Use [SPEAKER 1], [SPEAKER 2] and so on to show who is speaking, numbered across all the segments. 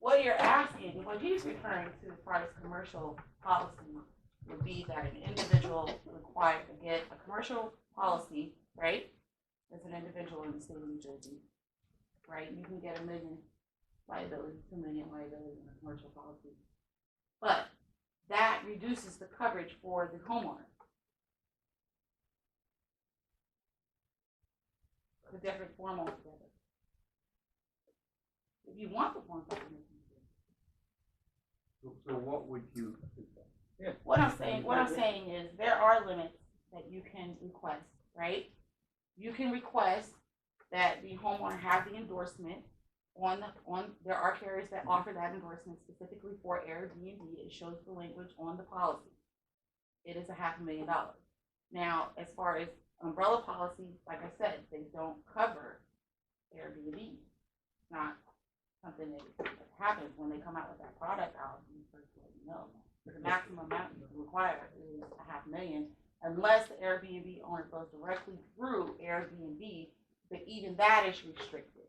[SPEAKER 1] What you're asking, what he's referring to as far as commercial policy would be that an individual required to get a commercial policy, right? As an individual in the state of New Jersey, right, you can get a million liability, two million liability in a commercial policy. But that reduces the coverage for the homeowner. The different form altogether. If you want the form document. you can.
[SPEAKER 2] So so what would you?
[SPEAKER 1] What I'm saying, what I'm saying is there are limits that you can request, right? You can request that the homeowner have the endorsement on the, on, there are carriers that offer that endorsement specifically for Airbnb. It shows the language on the policy. It is a half a million dollars. Now, as far as umbrella policies, like I said, they don't cover Airbnb. It's not something that happens when they come out with that product out in the first place, no the maximum amount you can require is a half million, unless the Airbnb owner goes directly through Airbnb, but even that is restricted.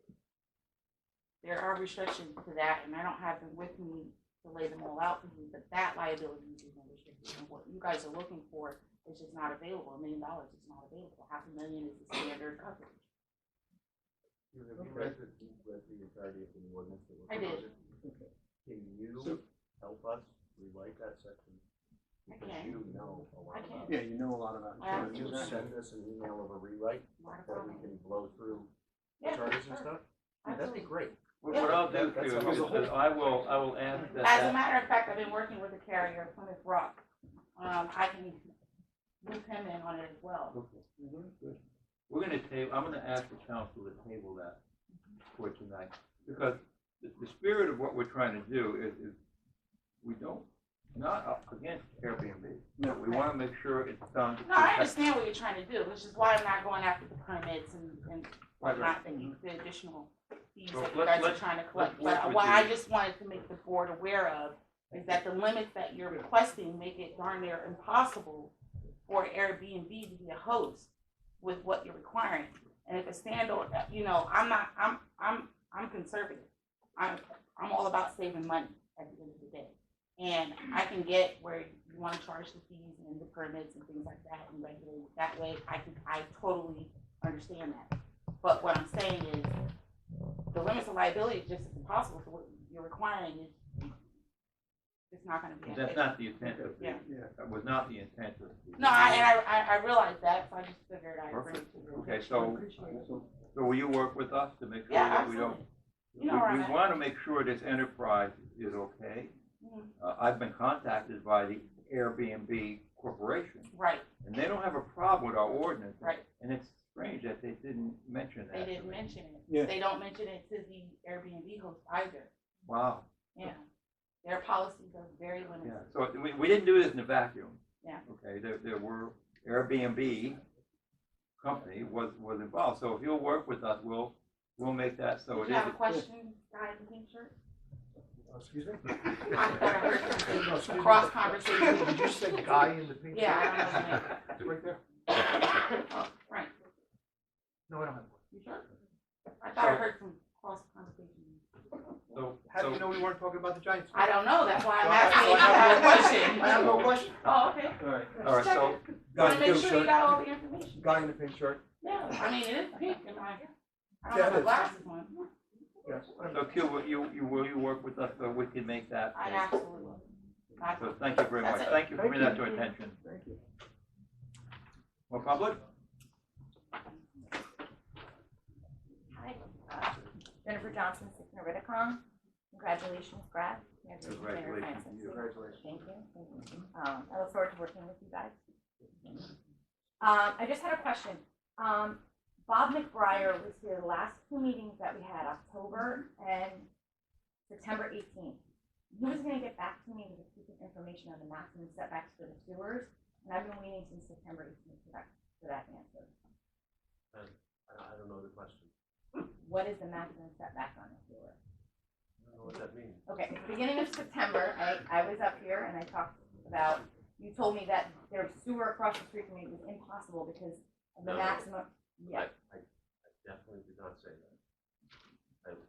[SPEAKER 1] There are restrictions to that, and I don't have them with me to lay them all out for you, but that liability is even restricted. And what you guys are looking for is just not available, a million dollars is not available, half a million is the standard coverage.
[SPEAKER 2] you know, Have you read the, you read the entirety of the ordinance? that we're
[SPEAKER 1] I did.
[SPEAKER 2] proposing? Can you help us rewrite that section?
[SPEAKER 1] I
[SPEAKER 2] Because
[SPEAKER 1] can.
[SPEAKER 2] you know a
[SPEAKER 1] I
[SPEAKER 2] lot about
[SPEAKER 1] can.
[SPEAKER 2] it.
[SPEAKER 3] Yeah, you know a lot about
[SPEAKER 1] Yeah.
[SPEAKER 2] Can
[SPEAKER 3] insurance.
[SPEAKER 2] you send us an email of a rewrite
[SPEAKER 1] Not a
[SPEAKER 2] that we
[SPEAKER 1] problem.
[SPEAKER 2] can blow through the
[SPEAKER 1] Yeah,
[SPEAKER 2] charges and
[SPEAKER 1] sure.
[SPEAKER 2] stuff? That'd be
[SPEAKER 1] Absolutely.
[SPEAKER 2] great.
[SPEAKER 4] What what I'll do
[SPEAKER 2] That- that's
[SPEAKER 4] too
[SPEAKER 2] how
[SPEAKER 4] is
[SPEAKER 2] the
[SPEAKER 4] that I will, I will ask that
[SPEAKER 1] As a
[SPEAKER 4] that.
[SPEAKER 1] matter of fact, I've been working with a carrier, Plymouth Rock. Um, I can loop him in on it as well.
[SPEAKER 4] Mm-hmm. We're gonna table, I'm gonna ask the council to table that for tonight, because the, the spirit of what we're trying to do is, is we don't, not up against Airbnb.
[SPEAKER 3] No.
[SPEAKER 4] We wanna make sure it's done. to
[SPEAKER 1] No, I
[SPEAKER 4] protect-
[SPEAKER 1] understand what you're trying to do, which is why I'm not going after the permits and, and
[SPEAKER 4] Right, right.
[SPEAKER 1] whatnot, the, the additional fees
[SPEAKER 4] Well,
[SPEAKER 1] that you
[SPEAKER 4] let-
[SPEAKER 1] guys are
[SPEAKER 4] let's-
[SPEAKER 1] trying to collect.
[SPEAKER 4] let's
[SPEAKER 1] But
[SPEAKER 4] work
[SPEAKER 1] what
[SPEAKER 4] with
[SPEAKER 1] I
[SPEAKER 4] you.
[SPEAKER 1] just wanted to make the board aware of is that the limits that you're requesting make it darn near impossible for Airbnb to be a host with what you're requiring. And if a standalone, you know, I'm not, I'm, I'm, I'm conservative. I'm, I'm all about saving money at the end of the day. And I can get where you wanna charge the fees and the permits and things like that and regulate it that way. I can, I totally understand that. But what I'm saying is, the limits of liability is just as impossible, so what you're requiring is, it's not gonna be.
[SPEAKER 4] That's not the intent of the,
[SPEAKER 1] Yeah.
[SPEAKER 3] Yeah.
[SPEAKER 4] that was not the intent of the.
[SPEAKER 1] No, I, and I, I, I realize that, so I just figured I'd bring it
[SPEAKER 4] Perfect.
[SPEAKER 1] to you.
[SPEAKER 4] Okay, so, so will you work with us to make sure
[SPEAKER 1] Yeah,
[SPEAKER 4] that we don't?
[SPEAKER 1] absolutely. You know where
[SPEAKER 4] We,
[SPEAKER 1] I'm
[SPEAKER 4] we
[SPEAKER 1] at.
[SPEAKER 4] wanna make sure this enterprise is okay.
[SPEAKER 1] Mhm.
[SPEAKER 4] Uh, I've been contacted by the Airbnb Corporation,
[SPEAKER 1] Right,
[SPEAKER 4] and they don't have a problem with our ordinance.
[SPEAKER 1] Right.
[SPEAKER 4] And it's strange that they didn't mention
[SPEAKER 1] they
[SPEAKER 4] that.
[SPEAKER 1] didn't mention it.
[SPEAKER 3] Yeah.
[SPEAKER 1] They don't mention it to the Airbnb host either,
[SPEAKER 4] Wow,
[SPEAKER 1] yeah. Their policies are very
[SPEAKER 4] yeah,
[SPEAKER 1] limited.
[SPEAKER 4] so we, we didn't do this in a vacuum.
[SPEAKER 1] Yeah.
[SPEAKER 4] Okay, there, there were Airbnb company was, was involved, so if you'll work with us, we'll, we'll make that so
[SPEAKER 1] Did
[SPEAKER 4] it
[SPEAKER 1] you
[SPEAKER 4] is.
[SPEAKER 1] have a question, guy in the pink shirt?
[SPEAKER 2] Oh, Excuse me?
[SPEAKER 1] I thought I heard
[SPEAKER 2] No, excuse
[SPEAKER 1] something,
[SPEAKER 2] me.
[SPEAKER 1] cross conversation.
[SPEAKER 2] Did you say guy in the pink?
[SPEAKER 1] Yeah,
[SPEAKER 2] shirt?
[SPEAKER 1] I don't know. his name.
[SPEAKER 2] It's Right there?
[SPEAKER 1] Oh, Frank,
[SPEAKER 2] No, I don't have one.
[SPEAKER 1] you sure? I thought I heard some cross conversation.
[SPEAKER 4] So,
[SPEAKER 2] How do you
[SPEAKER 4] so,
[SPEAKER 2] know we weren't talking about the Giants?
[SPEAKER 1] I don't know, that's why I'm
[SPEAKER 2] So I-
[SPEAKER 1] asking
[SPEAKER 2] so
[SPEAKER 1] if you
[SPEAKER 2] I
[SPEAKER 1] have a
[SPEAKER 2] have no- I
[SPEAKER 1] question.
[SPEAKER 2] have no question.
[SPEAKER 1] Oh, okay.
[SPEAKER 3] All right.
[SPEAKER 4] all right, so,
[SPEAKER 1] Want to
[SPEAKER 2] in
[SPEAKER 1] make
[SPEAKER 2] the
[SPEAKER 1] sure you
[SPEAKER 2] pink
[SPEAKER 1] got
[SPEAKER 2] shirt.
[SPEAKER 1] all the information.
[SPEAKER 2] Guy in the pink shirt.
[SPEAKER 1] Yeah, I mean, it is pink and my, I
[SPEAKER 2] Yeah,
[SPEAKER 1] don't have
[SPEAKER 2] it
[SPEAKER 1] my
[SPEAKER 2] is.
[SPEAKER 1] glasses on.
[SPEAKER 2] Yes.
[SPEAKER 4] so Q, will you, you, will you work with us so we can make that?
[SPEAKER 1] I absolutely will. I-
[SPEAKER 4] So thank you very much.
[SPEAKER 1] That's it.
[SPEAKER 4] Thank you for
[SPEAKER 3] Thank
[SPEAKER 4] bringing that to
[SPEAKER 1] you.
[SPEAKER 4] attention.
[SPEAKER 3] Thank you.
[SPEAKER 4] More public?
[SPEAKER 5] Hi, uh, Jennifer Johnson, Sycamore Riddicom. Congratulations, Brad.
[SPEAKER 4] Congratulations to you.
[SPEAKER 3] Congratulations.
[SPEAKER 5] Thank you. Thank you. Um, I look forward to working with you guys. Um, I just had a question. Um, Bob McBrier was here the last two meetings that we had, October and September eighteenth. He was gonna get back to me with a piece of information on the maximum setbacks for the sewers, and I've been waiting since September eighteenth for that, for that answer.
[SPEAKER 2] I I don't know the question.
[SPEAKER 5] What is the maximum setback on a sewer?
[SPEAKER 2] I don't know what that means.
[SPEAKER 5] Okay, at the beginning of September, I, I was up here and I talked about, you told me that their sewer across the street from me was impossible because of the
[SPEAKER 6] No.
[SPEAKER 5] maximum, yeah,
[SPEAKER 6] I definitely did not say that.